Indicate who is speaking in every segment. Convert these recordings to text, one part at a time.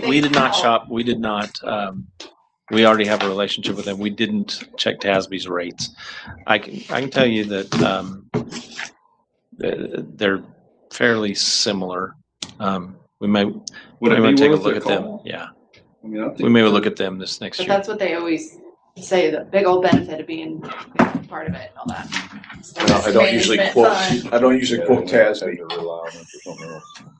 Speaker 1: We did not shop, we did not, um, we already have a relationship with them. We didn't check Tasby's rates. I can, I can tell you that, um, th- they're fairly similar. Um, we may,
Speaker 2: Would
Speaker 1: we
Speaker 2: it
Speaker 1: may
Speaker 2: be
Speaker 1: take a
Speaker 2: worth
Speaker 1: look
Speaker 2: a
Speaker 1: at them.
Speaker 2: call?
Speaker 1: Yeah,
Speaker 2: I mean, I
Speaker 1: we
Speaker 2: think,
Speaker 1: may look at them this next
Speaker 3: But
Speaker 1: year.
Speaker 3: that's what they always say, the big old benefit of being part of it and all that.
Speaker 4: I don't usually
Speaker 3: Management
Speaker 4: quote,
Speaker 3: fund.
Speaker 4: I don't usually quote Tasby.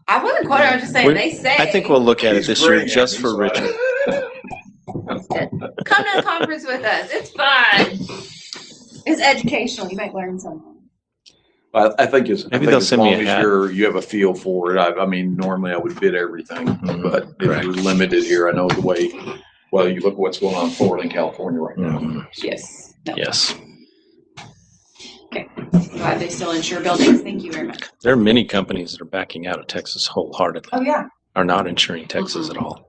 Speaker 3: I wasn't quoting, I was just
Speaker 1: We-
Speaker 3: saying, they say.
Speaker 1: I think we'll look at it this year just for Richard.
Speaker 3: Come to the conference with us, it's fun. It's educational, you might learn something.
Speaker 4: I, I think it's, I
Speaker 1: Maybe
Speaker 4: think
Speaker 1: they'll
Speaker 4: as
Speaker 1: send me
Speaker 4: long
Speaker 1: a
Speaker 4: as
Speaker 1: hat.
Speaker 4: you're, you have a feel for it, I, I mean, normally I would bid everything,
Speaker 1: Mhm,
Speaker 4: but if you're limited here, I know the way, well, you look at what's going on in Florida and California right now.
Speaker 1: Mhm,
Speaker 3: Yes, no,
Speaker 1: Yes,
Speaker 3: glad they still insure buildings, thank you very much.
Speaker 1: there are many companies that are backing out of Texas wholeheartedly,
Speaker 3: Oh, yeah,
Speaker 1: are not insuring Texas at all.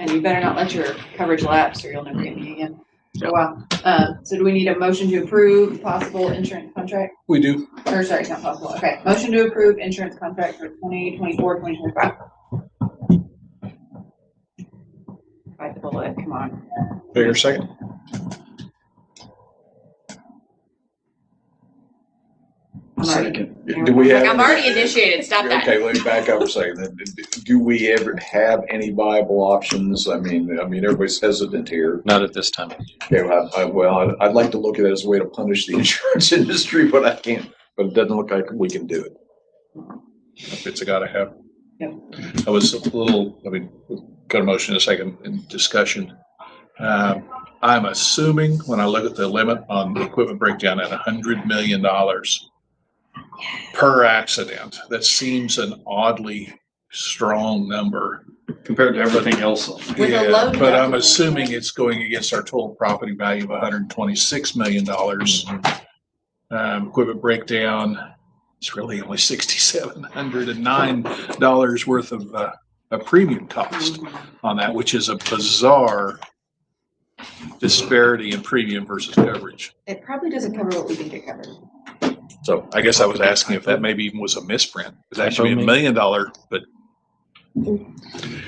Speaker 3: and you better not let your coverage lapse or you'll never get me again. Oh, wow, uh, so do we need a motion to approve possible insurance contract?
Speaker 4: We do.
Speaker 3: Or sorry, it's not possible. Okay, motion to approve insurance contract for 2024-2025. Bite the bullet, come on.
Speaker 4: Bigger second?
Speaker 3: I'm already-
Speaker 4: Do we have?
Speaker 3: Like, I'm already initiated, stop that.
Speaker 4: Okay, let me back up a second. then. Do we ever have any viable options? I mean, I mean, everybody's hesitant here.
Speaker 1: Not at this time.
Speaker 4: Okay, well, I, I- well, I'd- I'd like to look at it as a way to punish the insurance industry, but I can't, but it doesn't look like we can do it.
Speaker 5: It's a gotta happen.
Speaker 3: Yep.
Speaker 5: I was a little, I mean, got a motion in a second in discussion. Um, I'm assuming when I look at the limit on the equipment breakdown at a hundred million dollars per accident, that seems an oddly strong number.
Speaker 2: compared to everything else.
Speaker 3: With a
Speaker 5: Yeah,
Speaker 3: low
Speaker 5: But I'm
Speaker 3: deductible.
Speaker 5: assuming it's going against our total property value of hundred and twenty-six million dollars. Um, equipment breakdown, it's really only sixty-seven hundred and nine dollars worth of, uh, a premium cost
Speaker 3: Mm-hmm.
Speaker 5: on that, which is a bizarre disparity in premium versus coverage.
Speaker 3: It probably doesn't cover what we think it covered.
Speaker 5: So I guess I was asking if that maybe even was a misprint. It's actually a million dollar, but
Speaker 1: A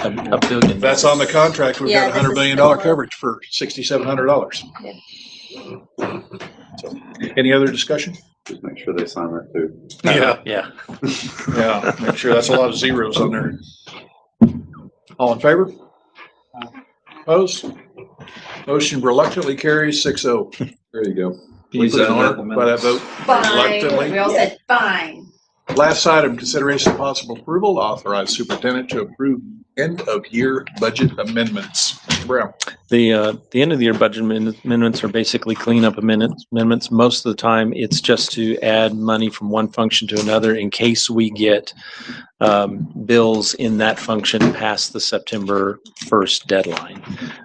Speaker 1: a billion.
Speaker 5: that's on the contract. We've
Speaker 6: Yeah,
Speaker 5: got a
Speaker 6: this
Speaker 5: hundred
Speaker 6: is
Speaker 5: million
Speaker 6: the
Speaker 5: dollar
Speaker 6: one.
Speaker 5: coverage for sixty-seven hundred dollars. Any other discussion?
Speaker 2: Just make sure they sign that too.
Speaker 5: Yeah,
Speaker 1: Yeah.
Speaker 5: yeah, make sure that's a lot of zeros on there. All in favor? Opposed? Motion reluctantly carries six oh.
Speaker 4: There you go.
Speaker 5: We put an honor by that vote.
Speaker 3: Fine,
Speaker 5: Reluctantly.
Speaker 3: we all said fine.
Speaker 5: Last item, consideration of possible approval, to authorize superintendent to approve end of year budget amendments. Mr. Brown,
Speaker 1: The, uh, the end of the year budget amen- amendments are basically cleanup amendments, amendments. Most of the time, it's just to add money from one function to another in case we get, um, bills in that function past the September first deadline.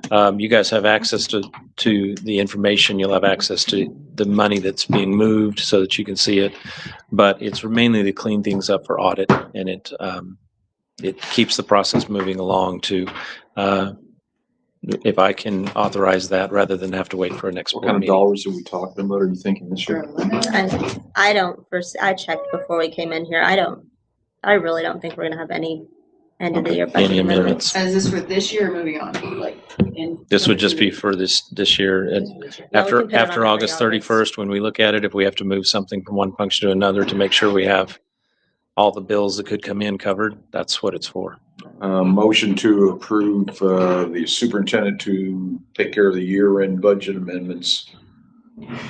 Speaker 1: Um, you guys have access to, to the information. You'll have access to the money that's being moved so that you can see it. But it's mainly to clean things up for audit and it, um, it keeps the process moving along to, uh, if I can authorize that rather than have to wait for a next
Speaker 4: What
Speaker 1: board
Speaker 4: kind of
Speaker 1: meeting.
Speaker 4: dollars are we talking about? Are you thinking this year?
Speaker 6: I, I don't, first, I checked before we came in here. I don't, I really don't think we're gonna have any end of the year budget
Speaker 1: Any
Speaker 6: amendments.
Speaker 1: amendments?
Speaker 3: And is this for this year or moving on, like? in-
Speaker 1: This would just be for this, this year. And
Speaker 6: Yeah, we can
Speaker 1: After,
Speaker 6: put it on
Speaker 1: after
Speaker 6: every
Speaker 1: August thirty-first, when we look at it, if we have to move something from one function to another to make sure we have all the bills that could come in covered, that's what it's for.
Speaker 4: Uh, motion to approve, uh, the superintendent to take care of the year-end budget amendments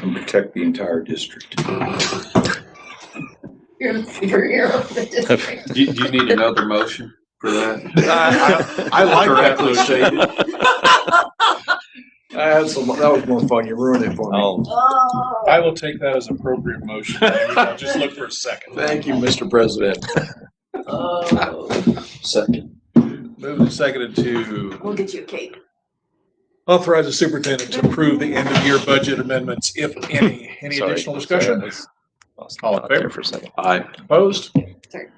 Speaker 4: and protect the entire district.
Speaker 3: You're the superhero of the district.
Speaker 2: Do you, do you need another motion for that?
Speaker 4: I I like that. That's, a lo- that was more fun. You ruined it for me.
Speaker 3: Oh.
Speaker 5: I will take that as appropriate motion. I'll Just look for a second.
Speaker 4: Thank you, Mr. President.
Speaker 3: Oh.
Speaker 1: Second.
Speaker 5: Moved and seconded to
Speaker 3: We'll get you a cake.
Speaker 5: Authorize the superintendent to approve the end of year budget amendments, if any. Any additional discussion? All in favor?
Speaker 1: For a second.
Speaker 4: I
Speaker 5: Opposed?
Speaker 3: Sorry.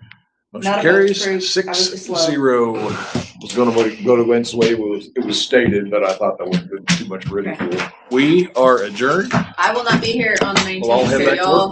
Speaker 5: Motion
Speaker 3: Not a vote to approve.
Speaker 5: carries
Speaker 3: I
Speaker 5: six
Speaker 3: was just slow.
Speaker 5: zero.
Speaker 4: was gonna vote- go to Lynn's way, it was, it was stated, but I thought that would have been too much ridicule.
Speaker 5: We are adjourned.
Speaker 3: I will not be here on the
Speaker 5: Well, I'll head back
Speaker 3: nineteenth,
Speaker 5: to
Speaker 3: so y'all
Speaker 5: work.